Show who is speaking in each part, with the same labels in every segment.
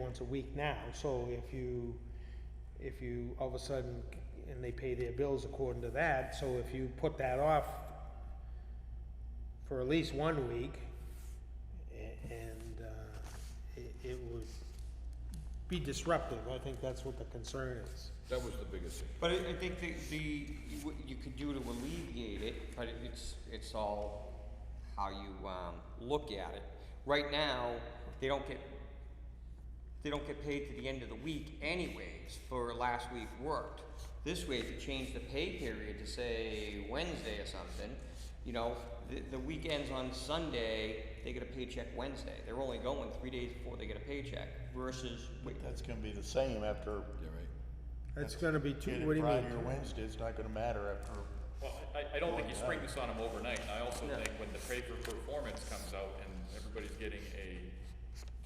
Speaker 1: once a week now, so if you, if you all of a sudden, and they pay their bills according to that, so if you put that off for at least one week, a- and, uh, it, it would be disruptive, I think that's what the concern is.
Speaker 2: That was the biggest issue.
Speaker 3: But I, I think the, the, what you could do to alleviate it, but it's, it's all how you, um, look at it. Right now, they don't get, they don't get paid to the end of the week anyways for last week worked. This way, if you change the pay period to say Wednesday or something, you know, the, the weekends on Sunday, they get a paycheck Wednesday. They're only going three days before they get a paycheck versus, wait,
Speaker 4: That's gonna be the same after.
Speaker 2: Yeah, right.
Speaker 1: That's gonna be
Speaker 4: Get
Speaker 1: two,
Speaker 4: it
Speaker 1: what do you mean?
Speaker 4: Friday or Wednesday, it's not gonna matter after,
Speaker 5: Well, I, I don't think you spring this on them overnight, and I also
Speaker 3: No.
Speaker 5: think when the pay for performance comes out and everybody's getting a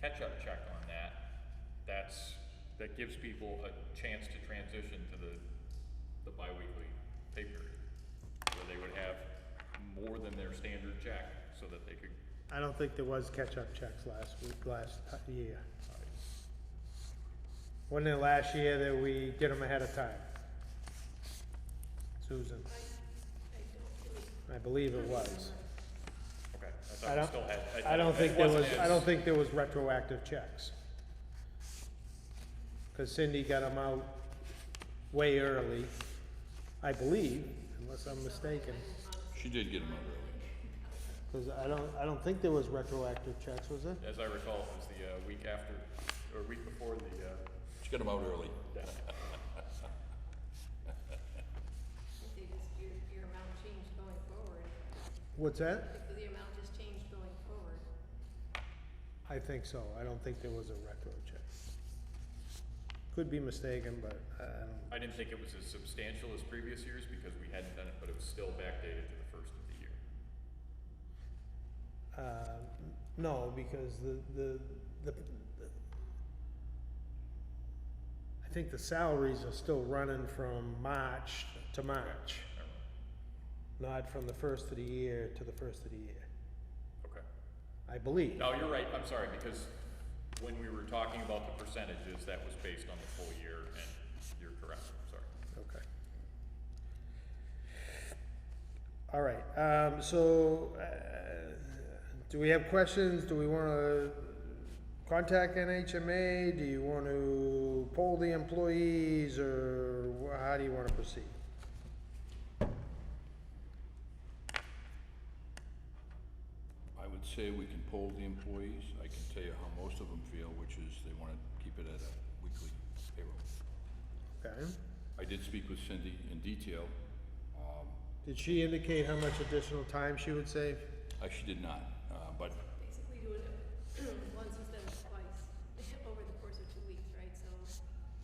Speaker 5: catch-up check on that, that's, that gives people a chance to transition to the, the bi-weekly pay period, where they would have more than their standard check, so that they could,
Speaker 1: I don't think there was catch-up checks last week, last ti- year. Wasn't it last year that we did them ahead of time? Susan? I believe it was.
Speaker 5: okay, I
Speaker 1: I
Speaker 5: thought we
Speaker 1: don't-
Speaker 5: still had.
Speaker 1: I don't
Speaker 5: it
Speaker 1: think there was,
Speaker 5: wasn't
Speaker 1: I
Speaker 5: as-
Speaker 1: don't think there was retroactive checks. Cause Cindy got them out way early, I believe, unless I'm mistaken.
Speaker 2: She did get them out early.
Speaker 1: Cause I don't, I don't think there was retroactive checks, was there?
Speaker 5: As I recall, it was the, uh, week after, or week before the, uh,
Speaker 2: She got them out early.
Speaker 6: They just, your, your amount changed going forward,
Speaker 1: What's that?
Speaker 6: if the amount just changed going forward.
Speaker 1: I think so, I don't think there was a retro check. Could be mistaken, but I I don't,
Speaker 5: I didn't think it was as substantial as previous years because we hadn't done it, but it was still backdated to the first of the year.
Speaker 1: uh, no, because the, the, the, I think the salaries are still running from March to March,
Speaker 5: Never mind.
Speaker 1: not from the first of the year to the first of the year,
Speaker 5: Okay.
Speaker 1: I believe.
Speaker 5: No, you're right, I'm sorry, because when we were talking about the percentages, that was based on the full year, and you're correct, I'm sorry.
Speaker 1: Okay. All right, um, so, uh, do we have questions? Do we wanna contact NHMA? Do you wanna poll the employees, or wh- how do you wanna proceed?
Speaker 2: I would say we can poll the employees. I can tell you how most of them feel, which is they want to keep it at a weekly payroll.
Speaker 1: Okay.
Speaker 2: I did speak with Cindy in detail. Um,
Speaker 1: Did she indicate how much additional time she would save?
Speaker 2: I, she did not, uh, but
Speaker 6: Basically doing it once instead of twice, over the course of two weeks, right, so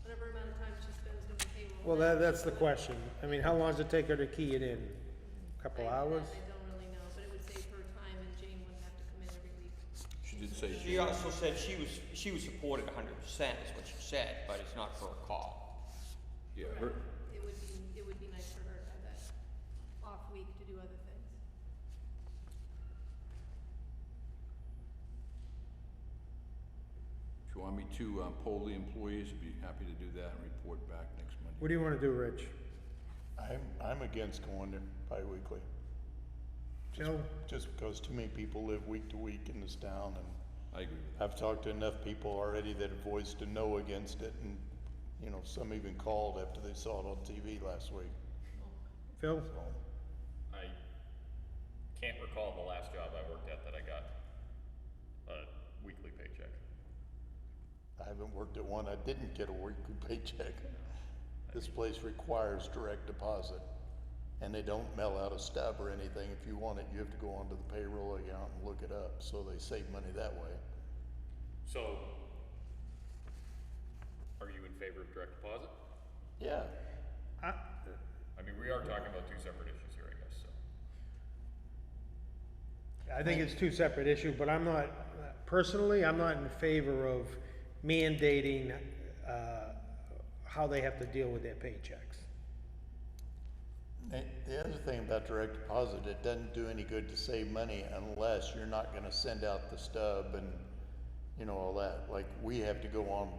Speaker 6: whatever amount of time she spends doing payroll.
Speaker 1: Well, that, that's
Speaker 6: that's
Speaker 1: the
Speaker 6: what-
Speaker 1: question. I mean, how long does it take her to key it in?
Speaker 6: I-
Speaker 1: Couple
Speaker 6: that
Speaker 1: hours?
Speaker 6: I don't really know, but it would save her time and Jane wouldn't have to come in every week.
Speaker 2: she did say
Speaker 3: She
Speaker 2: she
Speaker 3: also said she was, she was supported hundred percent is what she said, but it's not for a call.
Speaker 2: Yeah, her,
Speaker 6: It would be, it would be nice for her to have that off week to do other things.
Speaker 2: if you want me to um, poll the employees, I'd be happy to do that and report back next Monday.
Speaker 1: What do you wanna do, Rich?
Speaker 4: I'm, I'm against going there bi-weekly. Just-
Speaker 1: Joe?
Speaker 4: Just because too many people live week to week in this town and
Speaker 2: I agree with
Speaker 4: I've talked to enough people already that have voiced a no against it and, you know, some even called after they saw it on TV last week,
Speaker 1: Phil?
Speaker 4: so.
Speaker 5: I can't recall the last job I worked at that I got a weekly paycheck.
Speaker 4: I haven't worked at one, I didn't get a weekly paycheck. This place requires direct deposit, and they don't mail out a stub or anything. If you want it, you have to go onto the payroll account and look it up, so they save money that way.
Speaker 5: So, are you in favor of direct deposit?
Speaker 4: Yeah,
Speaker 5: I mean, we are talking about two separate issues here, I guess, so.
Speaker 1: I think it's two separate issues, but I'm not, personally, I'm not in favor of mandating, uh, how they have to deal with their paychecks.
Speaker 4: the, the other thing about direct deposit, it doesn't do any good to save money unless you're not gonna send out the stub and, you know, all that. Like, we have to go on